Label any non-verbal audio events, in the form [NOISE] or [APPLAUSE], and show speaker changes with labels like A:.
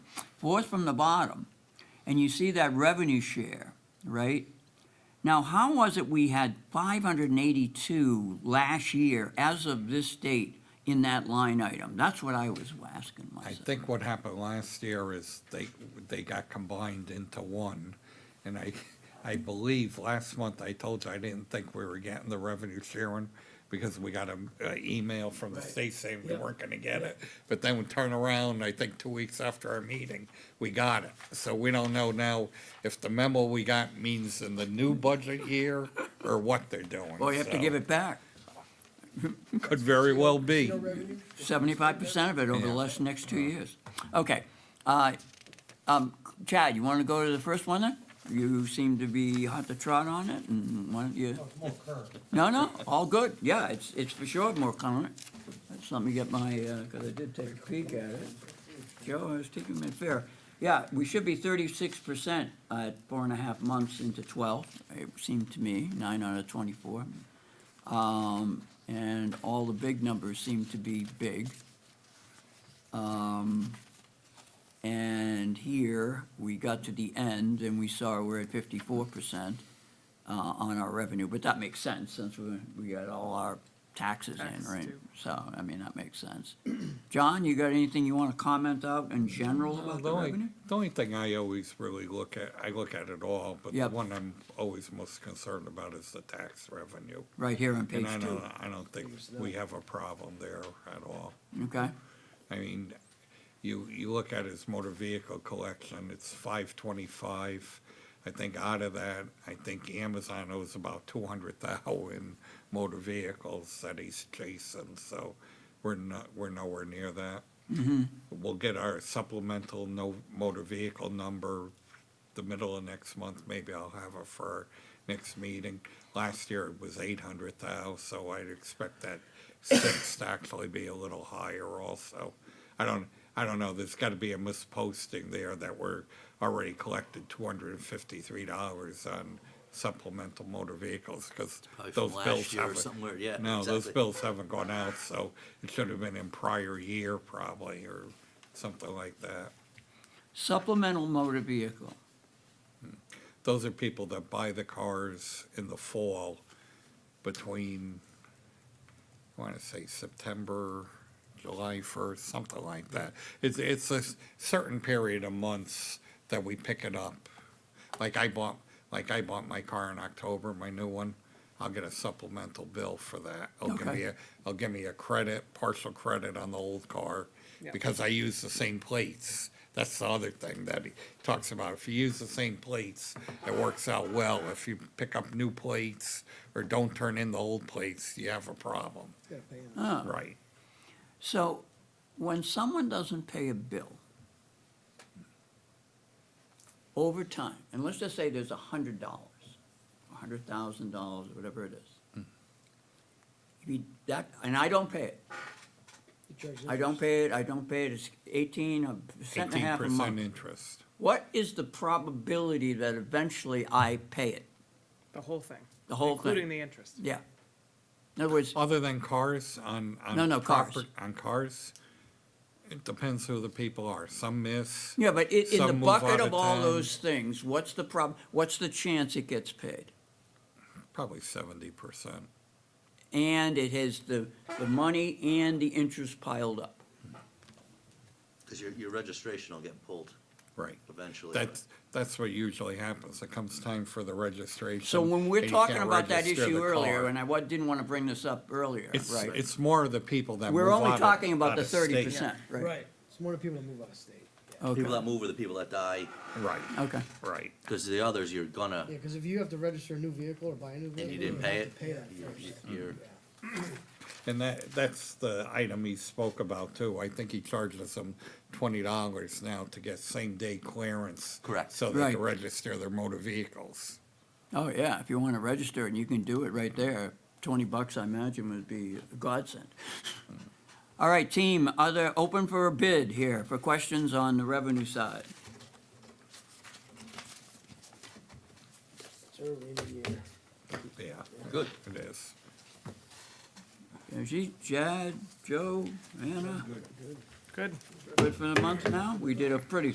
A: fourth from the bottom, and you see that revenue share, right? Now, how was it we had five hundred and eighty-two last year as of this date in that line item? That's what I was asking
B: I
A: myself.
B: think what happened last year is they, they got combined into one. And I, I believe last month I told you I didn't think we were getting the revenue sharing because we got an email from the state saying we
C: Yeah.
B: weren't gonna get it. But then we turn around, I think two weeks after our meeting, we got it. So we don't know now if the memo we got means in the new budget year or what they're doing.
A: Well, you have to give
B: So
A: it back,
B: Could very well be.
C: No revenue?
A: seventy-five percent of it over the
B: Yeah.
A: last, next two years. Okay, uh, um, Chad, you wanna go to the first one then? You seem to be hot to trot on it, and why don't you?
D: Oh, it's more current.
A: No, no, all good. Yeah, it's, it's for sure more current. That's let me get my, uh 'cause cause I did take a peek at it. Joe, I was taking it fair. Yeah, we should be thirty-six percent at four and a half months into twelve, it seemed to me, nine out of twenty-four. Um, and all the big numbers seem to be big. Um, and here, we got to the end and we saw we're at fifty-four percent uh, on our revenue, but that makes sense since we, we got all our taxes in,
E: Taxes
A: right?
E: due.
A: So, I mean, that makes sense. [CLEARS THROAT] John, you got anything you wanna comment out in general
B: Well,
A: about
B: The
A: the
B: only,
A: revenue?
B: the only thing I always really look at, I look at it all, but the
A: Yep.
B: one I'm always most concerned about is the tax revenue.
A: Right here on
B: And
A: page
B: I
A: two,
B: don't, I don't think we have a problem there at all.
A: okay?
B: I mean, you, you look at his motor vehicle collection, it's five twenty-five. I think out of that, I think Amazon owes about two hundred thousand motor vehicles that he's chasing, so we're not, we're nowhere near that. We'll get our supplemental no, motor vehicle number the middle of next month, maybe I'll have it for our next meeting. Last year it was eight hundred thousand, so I'd expect that six [COUGHS] to actually be a little higher also. I don't, I don't know, there's gotta be a misposting there that we're already collected two hundred and fifty-three dollars on supplemental motor vehicles, cause
F: Probably from
B: those
F: last
B: bills
F: year or
B: haven't.
F: something weird, yeah,
B: No, those
F: exactly.
B: bills haven't gone out, so it should have been in prior year probably, or something like that.
A: Supplemental motor vehicle,
B: those are people that buy the cars in the fall between, I want to say September, July 1st, something like that. It's, it's a s- certain period of months that we pick it up. Like I bought, like I bought my car in October, my new one. I'll get a supplemental bill for that. It'll give
A: Okay.
B: me a, it'll give me a credit, partial credit on the old car
E: Yeah.
B: because I use the same plates. That's the other thing that he talks about. If you use the same plates, it works out well. If you pick up new plates or don't turn in the old plates, you have a problem.
C: Yeah, paying.
B: Right.
A: so when someone doesn't pay a bill over time, and let's just say there's a hundred dollars, a hundred thousand dollars, whatever it
B: Hmm.
A: is. If you, that, and I don't pay it,
C: You charge
A: I don't pay it, I don't pay it, it's eighteen, a cent and a
B: Eighteen
A: half a month.
B: percent interest.
A: What is the probability that eventually I pay it?
E: The whole thing.
A: The whole
E: Including
A: thing?
E: the interest.
A: Yeah. In other words,
B: Other than cars on, on.
A: No, no, cars.
B: proper- On cars, it depends who the people are. Some miss.
A: yeah, but in, in the
B: Some move
A: bucket
B: out
A: of
B: of
A: all
B: town.
A: those things, what's the prob, what's the chance it gets paid?
B: Probably seventy percent.
A: And it has the, the money and the interest piled up.
F: Because your, your registration will get pulled
B: Right.
F: eventually. but-
B: That's, that's what usually happens. It comes time for the registration.
A: So when we're
B: and you
A: talking
B: can't
A: about that
B: register
A: issue
B: the car.
A: earlier, and I wa- didn't want to bring this up earlier,
B: It's,
A: right?
B: it's more of the people that
A: We're
B: move
A: only
B: out of-
A: talking about
B: out
A: the
B: of state.
A: thirty percent, right?
C: Right, it's more the people that move out of state.
A: Okay,
F: People that move are the people that die,
B: Right,
A: okay.
B: right.
F: because the others, you're gonna,
C: Yeah, because if you have to register a new vehicle or buy a new vehicle.
F: and you didn't
C: have
F: pay
C: to
F: it.
C: Pay that
F: you're-
C: first. Mm-hmm.
F: You're,
B: And that, that's the item he spoke about too. I think he charged us some twenty dollars now to get same day clearance.
F: Correct.
B: So they
A: Right.
B: can register their motor vehicles.
A: Oh, yeah, if you want to register and you can do it right there, twenty bucks, I imagine, would be a
B: [LAUGHS]
A: godsend. All right, team, other, open for a bid here for questions on the revenue side.
C: It's early in the year.
B: Yeah. Good. It is.
A: Angie, Jad, Joe, Anna,
E: Good.
A: good for the month now? We did a pretty